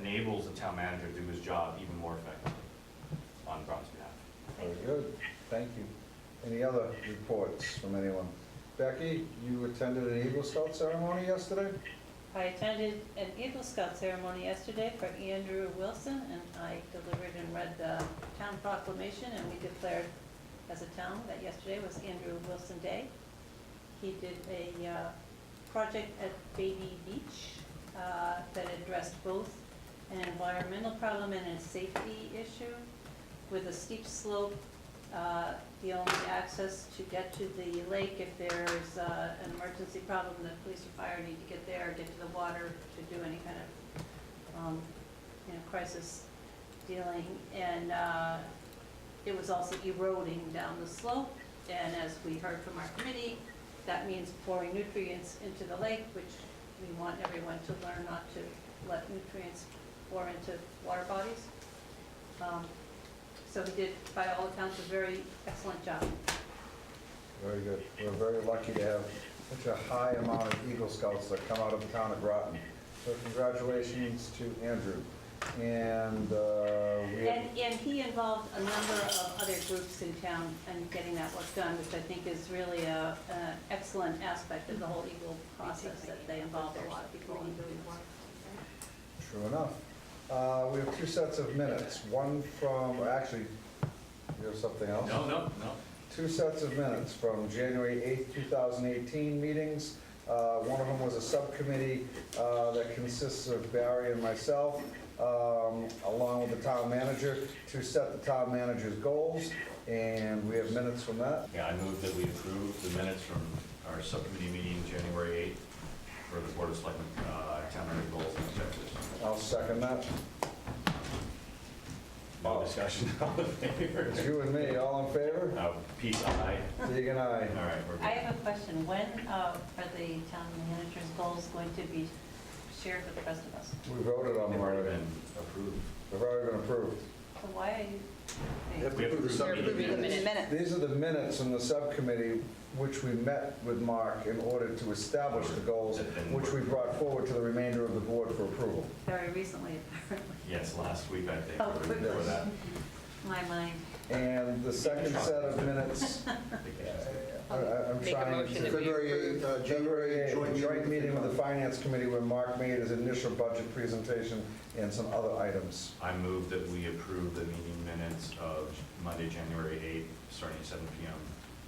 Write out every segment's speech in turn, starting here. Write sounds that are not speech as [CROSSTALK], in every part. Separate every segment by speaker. Speaker 1: enables the town manager to do his job even more effectively on Brown's behalf.
Speaker 2: Very good, thank you. Any other reports from anyone? Becky, you attended an Eagle Scout ceremony yesterday?
Speaker 3: I attended an Eagle Scout ceremony yesterday for Andrew Wilson, and I delivered and read the town proclamation, and we declared as a town that yesterday was Andrew Wilson Day. He did a uh, project at Baby Beach uh, that addressed both an environmental problem and a safety issue. With a steep slope, uh, the only access to get to the lake, if there's uh, an emergency problem, the police or fire need to get there, get to the water to do any kind of, um, you know, crisis dealing. And uh, it was also eroding down the slope, and as we heard from our committee, that means pouring nutrients into the lake, which we want everyone to learn not to let nutrients pour into water bodies. Um, So he did, by all accounts, a very excellent job.
Speaker 2: Very good. We're very lucky to have such a high amount of Eagle Scouts that come out of the town of Groton. So congratulations to Andrew. And uh, we have...
Speaker 3: And, and he involved a number of other groups in town and getting that work done, which I think is really a, an excellent aspect of the whole Eagle process, that they involved a lot of people in doing this.
Speaker 2: True enough. Uh, We have two sets of minutes, one from, actually, you have something else?
Speaker 1: No, no, no.
Speaker 2: Two sets of minutes from January 8th, 2018 meetings. Uh, One of them was a subcommittee uh, that consists of Barry and myself, um, along with the town manager, to set the town manager's goals, and we have minutes from that.
Speaker 1: Yeah, I move that we approve the minutes from our subcommittee meeting, January 8th, for the Board of Selectmen, uh, town manager goals and objectives.
Speaker 2: I'll second that.
Speaker 1: No
Speaker 2: [LAUGHS]
Speaker 1: discussion, all in
Speaker 2: It's
Speaker 1: favor?
Speaker 2: you and me, all in favor?
Speaker 1: Uh, Peace, aye.
Speaker 2: Deegan,
Speaker 1: All
Speaker 2: aye.
Speaker 1: right, we're
Speaker 3: I
Speaker 1: good.
Speaker 3: have a question. When uh, are the town manager's goals going to be shared with the rest of us?
Speaker 2: We voted on
Speaker 1: They've
Speaker 2: them
Speaker 1: already
Speaker 2: already.
Speaker 1: been approved.
Speaker 2: They've already been approved.
Speaker 3: So why are you?
Speaker 1: We have to approve the
Speaker 4: approving the minutes.
Speaker 1: minutes.
Speaker 4: Minute.
Speaker 2: These are the minutes from the subcommittee, which we met with Mark in order to establish the goals, which we brought forward to the remainder of the board for approval.
Speaker 3: Very recently, [LAUGHS] apparently.
Speaker 1: Yes, last week, I think,
Speaker 3: Oh,
Speaker 1: or before
Speaker 2: goodness.
Speaker 1: that.
Speaker 3: My mind.
Speaker 2: And the second set
Speaker 4: [LAUGHS]
Speaker 2: of minutes, I-
Speaker 3: [LAUGHS]
Speaker 1: I think it's-
Speaker 2: I- I'm
Speaker 4: Make a
Speaker 2: trying
Speaker 4: motion that
Speaker 2: to...
Speaker 4: we-
Speaker 5: February 8th, uh,
Speaker 2: January
Speaker 5: January
Speaker 2: 8th,
Speaker 5: joint
Speaker 2: joint meeting with the
Speaker 5: FinCom.
Speaker 2: Finance Committee where Mark made his initial budget presentation and some other items.
Speaker 1: I move that we approve the meeting minutes of Monday, January 8th, starting at 7 PM,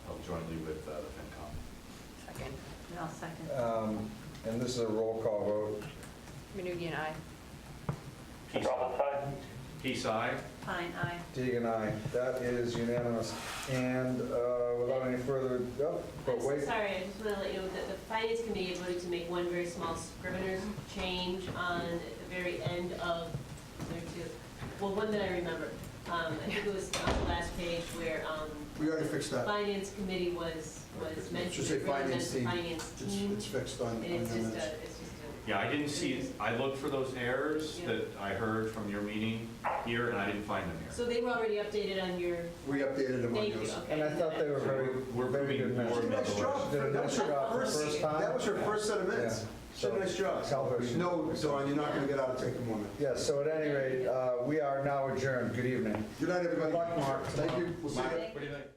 Speaker 1: held jointly with uh, the FinCom.
Speaker 4: Second.
Speaker 3: And I'll second.
Speaker 2: Um, And this is a roll call vote.
Speaker 4: Minoogian, aye.
Speaker 1: Peace I. Peace I.
Speaker 3: Pine, aye.
Speaker 2: Deegan, aye. That is unanimous. And uh, without any further, oh,
Speaker 6: I'm
Speaker 2: but
Speaker 6: so
Speaker 2: wait.
Speaker 6: sorry, I just want to let you know that the finance committee voted to make one very small scrivener's change on the very end of, there are two, well, one that I remember. Um, I think it was on the last page where, um,
Speaker 5: We already fixed that.
Speaker 6: finance committee was, was mentioned.
Speaker 5: Should say
Speaker 6: It really
Speaker 5: finance
Speaker 6: meant
Speaker 5: team.
Speaker 6: Finance
Speaker 5: It's
Speaker 6: team,
Speaker 5: it's fixed on on
Speaker 6: and
Speaker 5: the
Speaker 6: it's Mm-hmm. just
Speaker 5: minutes.
Speaker 6: a, it's just a.
Speaker 1: Yeah, I didn't see, I looked for those errors
Speaker 6: Yeah.
Speaker 1: that I heard from your meeting here, and I didn't find them here.
Speaker 6: So they were already updated on your,
Speaker 5: We updated them on
Speaker 6: thank you,
Speaker 5: yours.
Speaker 6: okay.
Speaker 2: And I thought they were very,
Speaker 1: We're
Speaker 2: very good
Speaker 1: moving
Speaker 2: minutes.
Speaker 1: forward.
Speaker 5: Nice job.
Speaker 2: Did a
Speaker 5: That
Speaker 2: nice
Speaker 5: was
Speaker 2: job for the first time.
Speaker 5: That was your first set of minutes.
Speaker 2: Yeah.
Speaker 5: She did a nice job.
Speaker 2: Tell her she-
Speaker 5: No, Dawn, you're not going to get out of take a moment.
Speaker 2: Yes, so at any rate, uh, we are now adjourned. Good evening.
Speaker 5: Good night, everybody.
Speaker 2: Good luck, Mark.
Speaker 5: Thank you. We'll see you.
Speaker 2: Bye.
Speaker 1: What do you think?